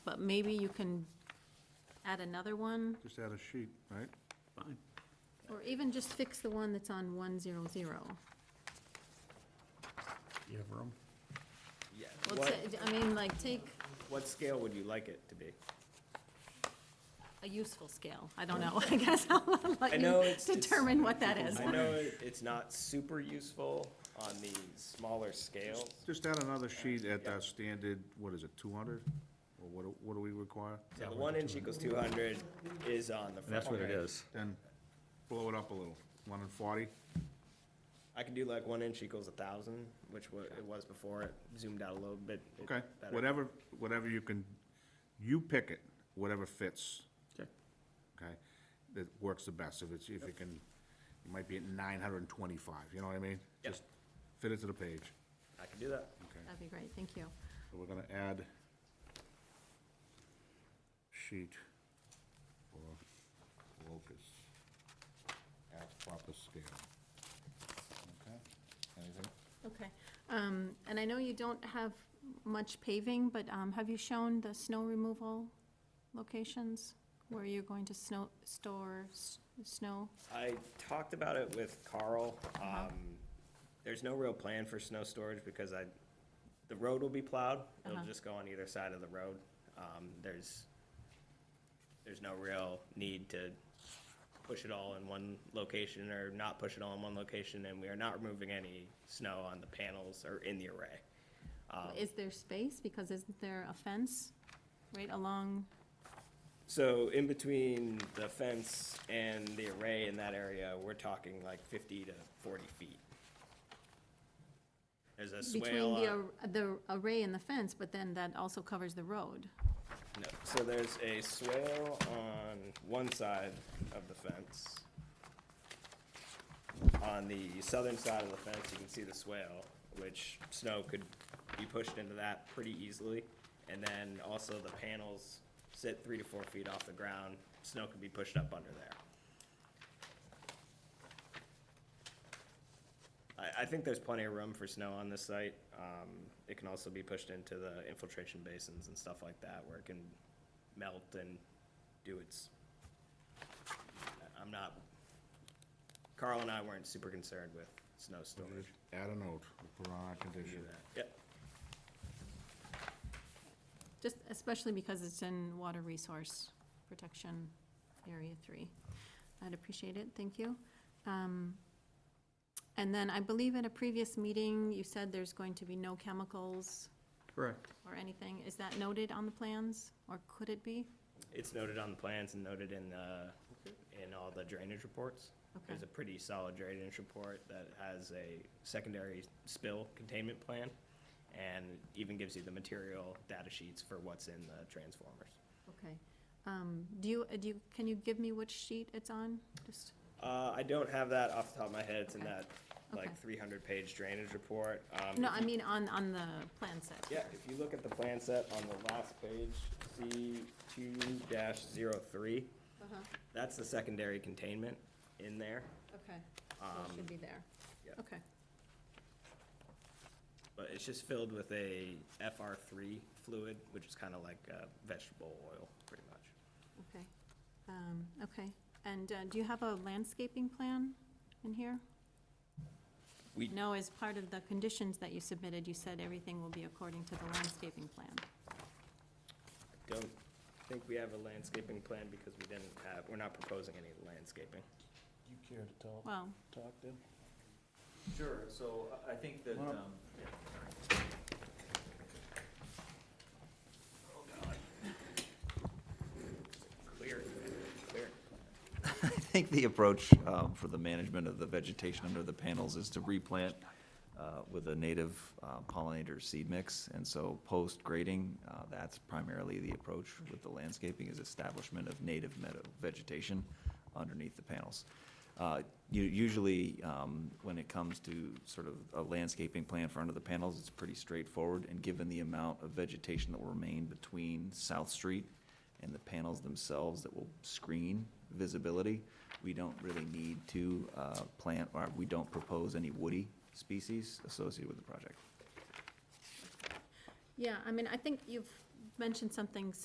But maybe you can add another one, Just add a sheet, right? Fine. or even just fix the one that's on one zero zero. You have room? Yeah. Well, What, ta- I mean, like, take what scale would you like it to be? a useful scale, I don't know, I guess I'll I let know you it's- it's- determine what that is. I know it- it's not super useful on the smaller scales. Just add another sheet at that standard, what is it, two hundred? Or what, do- what do we require? So the one inch equals two hundred is on the front. that's what it right? is. Then blow it up a little, one in forty, I can do like one inch equals a thousand, which wa- it was before, it zoomed out a little bit. it- okay? better. Whatever, whatever you can, you pick it, whatever fits, Okay. okay? That works the best, if it's, if you can, it might be at nine hundred and twenty-five, you know what I mean? Yep. Just Fit it to the page, I can do that. okay? That'd be great, thank you. So we're gonna add sheet or locus at proper scale. Okay, anything? Okay, um, and I know you don't have much paving, but, um, have you shown the snow removal locations? Where you're going to snow, store s- snow? I talked about it with Carl. Um, there's no real plan for snow storage because I, the road will be plowed. It'll Uh-huh. just go on either side of the road. Um, there's, there's no real need to push it all in one location or not push it all in one location. And we are not removing any snow on the panels or in the array. Um, Is there space, because isn't there a fence right along? So in between the fence and the array in that area, we're talking like fifty to forty feet. There's a swale, Between the, on- ar- the array and the fence, but then that also covers the road. no, so there's a swale on one side of the fence. On the southern side of the fence, you can see the swale, which snow could be pushed into that pretty easily. And then also the panels sit three to four feet off the ground, snow could be pushed up under there. I, I think there's plenty of room for snow on this site. Um, it can also be pushed into the infiltration basins and stuff like that where it can melt and do its. I- I'm not, Carl and I weren't super concerned with snow storage. Add a note, put on our Do condition. that. Yep, Just especially because it's in Water Resource Protection Area Three. I'd appreciate it, thank you. Um, And then I believe at a previous meeting, you said there's going to be no chemicals Correct. or anything. Is that noted on the plans, or could it be? it's noted on the plans and noted in, uh, in all the drainage reports. Okay, There's a pretty solid drainage report that has a secondary spill containment plan and even gives you the material data sheets for what's in the transformers. okay. Um, Do you, do you, can you give me which sheet it's on? Just, Uh, I don't have that off the top of my head. It's in Okay. that Okay. like three hundred page drainage report. Um, no, if I you- mean on, on the plan set. Yeah, if you look at the plan set on the last page, C two dash zero three, Uh-huh, that's the secondary containment in there. Okay, so it Um, should be there. yeah. Okay, But it's just filled with a FR three fluid, which is kind of like uh, vegetable oil, pretty much. okay. Um, Okay, and uh, do you have a landscaping plan in here? We- No, as part of the conditions that you submitted, you said everything will be according to the landscaping plan. I Don't think we have a landscaping plan because we didn't have, we're not proposing any landscaping. You care to tell, Well, talk to? Sure, so I- I think that, Come on up. um, yeah. Clear, clear. I think the approach um, for the management of the vegetation under the panels is to replant uh, with a native uh, pollinator seed mix. And so post-grading, uh, that's primarily the approach with the landscaping, is establishment of native meadow vegetation underneath the panels. Uh, u- Usually, um, when it comes to sort of a landscaping plan for under the panels, it's pretty straightforward. And given the amount of vegetation that will remain between South Street and the panels themselves that will screen visibility. We don't really need to uh, plant, or we don't propose any woody species associated with the project. yeah, I mean, I think you've mentioned something